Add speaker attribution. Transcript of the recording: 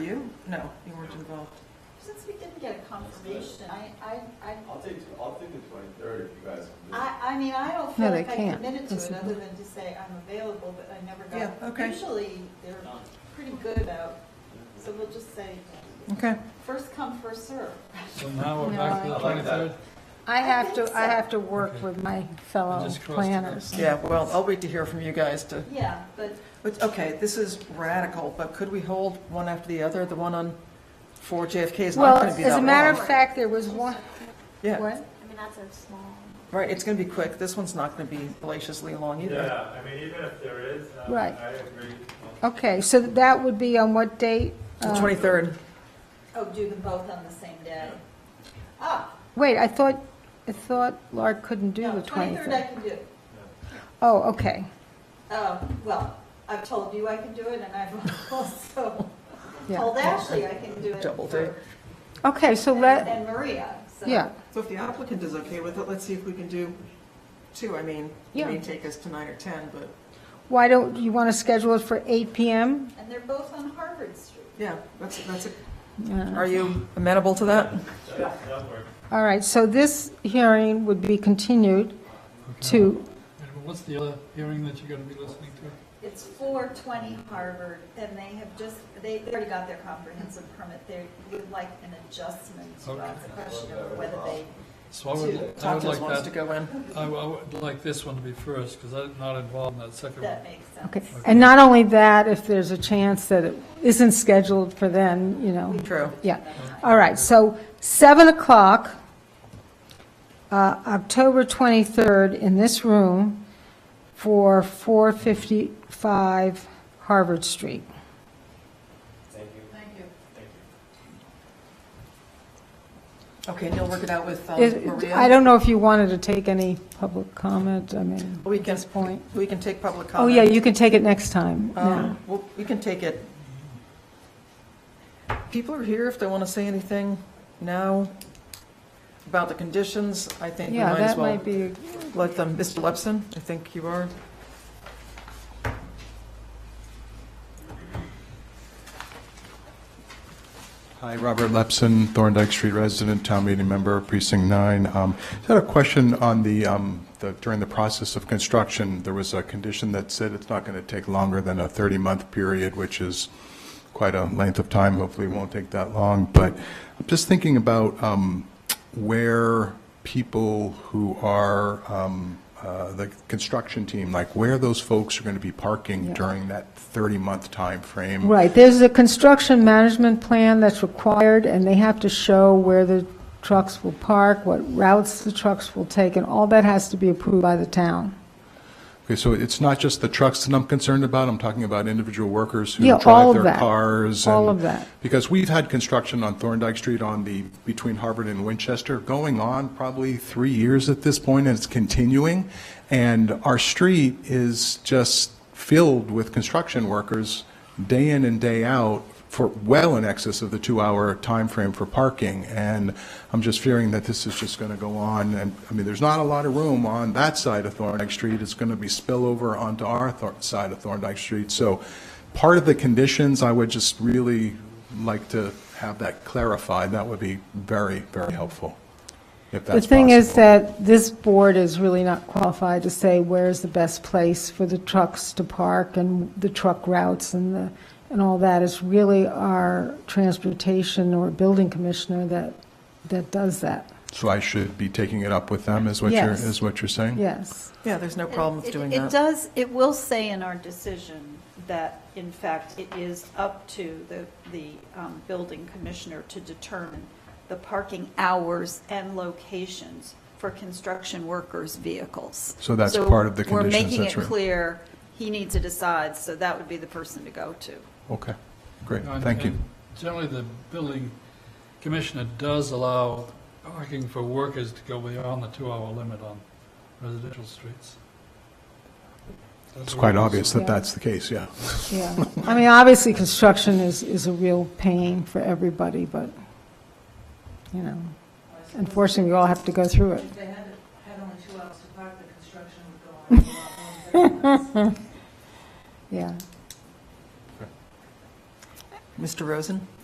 Speaker 1: you? No, you weren't involved.
Speaker 2: Since we didn't get a confirmation, I, I, I,
Speaker 3: I'll take, I'll take the twenty-third if you guys can do it.
Speaker 2: I, I mean, I don't
Speaker 4: No,
Speaker 2: feel
Speaker 4: they
Speaker 2: like I
Speaker 4: can't.
Speaker 2: committed to
Speaker 4: That's
Speaker 2: it,
Speaker 4: the-
Speaker 2: other than to say I'm available, but I never got.
Speaker 1: Yeah, okay.
Speaker 2: Usually, they're pretty good about, so we'll just say,
Speaker 1: Okay.
Speaker 2: first come, first serve.
Speaker 5: So now we're back to
Speaker 3: No,
Speaker 5: the
Speaker 3: I- I like that.
Speaker 5: 23rd?
Speaker 4: I have
Speaker 2: think
Speaker 4: to, I
Speaker 2: so.
Speaker 4: have to work with my fellow
Speaker 5: Just cross it out.
Speaker 4: planners.
Speaker 1: Yeah, well, I'll wait to hear from you guys to,
Speaker 2: Yeah, but
Speaker 1: but, okay, this is radical, but could we hold one after the other? The one on four JFK is
Speaker 4: Well,
Speaker 1: not going to be that
Speaker 4: as a
Speaker 1: long.
Speaker 4: matter of fact, there was one,
Speaker 1: Yeah,
Speaker 4: what?
Speaker 6: I mean, that's a small.
Speaker 1: right, it's going to be quick. This one's not going to be hellaciously long either.
Speaker 7: Yeah, I mean, even if there is, um, I
Speaker 4: Right.
Speaker 7: agree.
Speaker 4: Okay, so that would be on what date?
Speaker 1: The
Speaker 4: Uh,
Speaker 1: 23rd,
Speaker 2: Oh, do them both on the same day? Ah,
Speaker 4: Wait, I thought, I thought Lark couldn't do
Speaker 2: no,
Speaker 4: the
Speaker 2: 23rd I
Speaker 4: 23rd.
Speaker 2: can do.
Speaker 4: Oh, okay.
Speaker 2: Oh, well, I've told you I can do it, and I've also
Speaker 4: Yeah.
Speaker 2: told Ashley I can do it.
Speaker 1: Double
Speaker 2: for-
Speaker 1: date.
Speaker 4: Okay, so
Speaker 2: And
Speaker 4: let,
Speaker 2: and Maria, so.
Speaker 4: yeah,
Speaker 1: So if the applicant is okay with it, let's see if we can do two. I mean, it may
Speaker 4: Yeah.
Speaker 1: take us to nine or 10, but,
Speaker 4: why don't, you want to schedule it for 8 PM?
Speaker 2: And they're both on Harvard Street.
Speaker 1: yeah, that's, that's, a-
Speaker 4: Yeah.
Speaker 1: are you amenable to that?
Speaker 7: That- That works.
Speaker 4: All right, so this hearing would be continued to,
Speaker 5: And what's the other hearing that you're going to be listening to?
Speaker 2: It's 420 Harvard, and they have just, they they already got their comprehensive permit. They would like an adjustment to
Speaker 5: Okay.
Speaker 2: ask the question of whether they,
Speaker 5: So I would, I would
Speaker 1: Tompkins wants
Speaker 5: like
Speaker 1: to
Speaker 5: that,
Speaker 1: go in.
Speaker 5: I would- I would like this one to be first, because I'm not involved in that second one.
Speaker 2: that makes sense.
Speaker 4: okay. And not only that, if there's a chance that it isn't scheduled for then, you know.
Speaker 1: True.
Speaker 4: Yeah, all right, so 7 o'clock, uh, October 23rd, in this room for 455 Harvard Street.
Speaker 3: Thank you. Thank you. Thank you.
Speaker 1: Okay, and you'll work it out with um,
Speaker 4: Is-
Speaker 1: Maria?
Speaker 4: I don't know if you wanted to take any public comment, I mean,
Speaker 1: We
Speaker 4: at
Speaker 1: can,
Speaker 4: this point.
Speaker 1: we can take public
Speaker 4: Oh,
Speaker 1: comment.
Speaker 4: yeah, you can take it next time, yeah.
Speaker 1: Um, Well, we can take it. People are here if they want to say anything now about the conditions. I think we
Speaker 4: Yeah,
Speaker 1: might as
Speaker 4: that
Speaker 1: well
Speaker 4: might be,
Speaker 1: let them, Mr. Lepson, I think you are.
Speaker 8: Hi, Robert Lepson, Thorndike Street resident, town meeting member, precinct nine. Um, Just had a question on the, um, the- during the process of construction, there was a condition that said it's not going to take longer than a 30-month period, which is quite a length of time, hopefully it won't take that long. But I'm just thinking about um, where people who are, um, uh, the construction team, like where those folks are going to be parking during that 30-month timeframe.
Speaker 4: right, there's a construction management plan that's required, and they have to show where the trucks will park, what routes the trucks will take, and all that has to be approved by the town.
Speaker 8: Okay, so it's not just the trucks that I'm concerned about, I'm talking about individual workers who
Speaker 4: Yeah, all
Speaker 8: drive
Speaker 4: of
Speaker 8: their
Speaker 4: that.
Speaker 8: cars.
Speaker 4: All
Speaker 8: and-
Speaker 4: of that.
Speaker 8: Because we've had construction on Thorndike Street on the, between Harvard and Winchester, going on probably three years at this point, and it's continuing. And our street is just filled with construction workers, day in and day out, for well in excess of the two-hour time frame for parking. And I'm just fearing that this is just going to go on, and, I mean, there's not a lot of room on that side of Thorndike Street. It's going to be spillover onto our Thor- side of Thorndike Street. So part of the conditions, I would just really like to have that clarified. That would be very, very helpful, if
Speaker 4: The
Speaker 8: that's
Speaker 4: thing is
Speaker 8: possible.
Speaker 4: that this board is really not qualified to say where's the best place for the trucks to park and the truck routes and the, and all that. It's really our transportation or building commissioner that, that does that.
Speaker 8: So I should be taking it up with them, is what you're,
Speaker 4: Yes.
Speaker 8: is what you're saying?
Speaker 4: Yes.
Speaker 1: Yeah, there's no problem with
Speaker 2: It-
Speaker 1: doing
Speaker 2: It
Speaker 1: that.
Speaker 2: does, it will say in our decision that, in fact, it is up to the, the um, building commissioner to determine the parking hours and locations for construction workers' vehicles.
Speaker 8: So that's part of the
Speaker 2: We're
Speaker 8: conditions,
Speaker 2: making
Speaker 8: that's
Speaker 2: it
Speaker 8: right.
Speaker 2: clear, he needs to decide, so that would be the person to go to.
Speaker 8: Okay, great,
Speaker 5: And-
Speaker 8: thank you.
Speaker 5: and Generally, the building commissioner does allow parking for workers to go beyond the two-hour limit on residential streets.
Speaker 8: It's quite obvious that that's the case, yeah.
Speaker 4: Yeah. I mean, obviously, construction is, is a real pain for everybody, but, you know, unfortunately, we all have to go through it.
Speaker 9: If they had, had only two hours to park, the construction would go on a lot longer.
Speaker 4: Yeah.
Speaker 1: Mr. Rosen?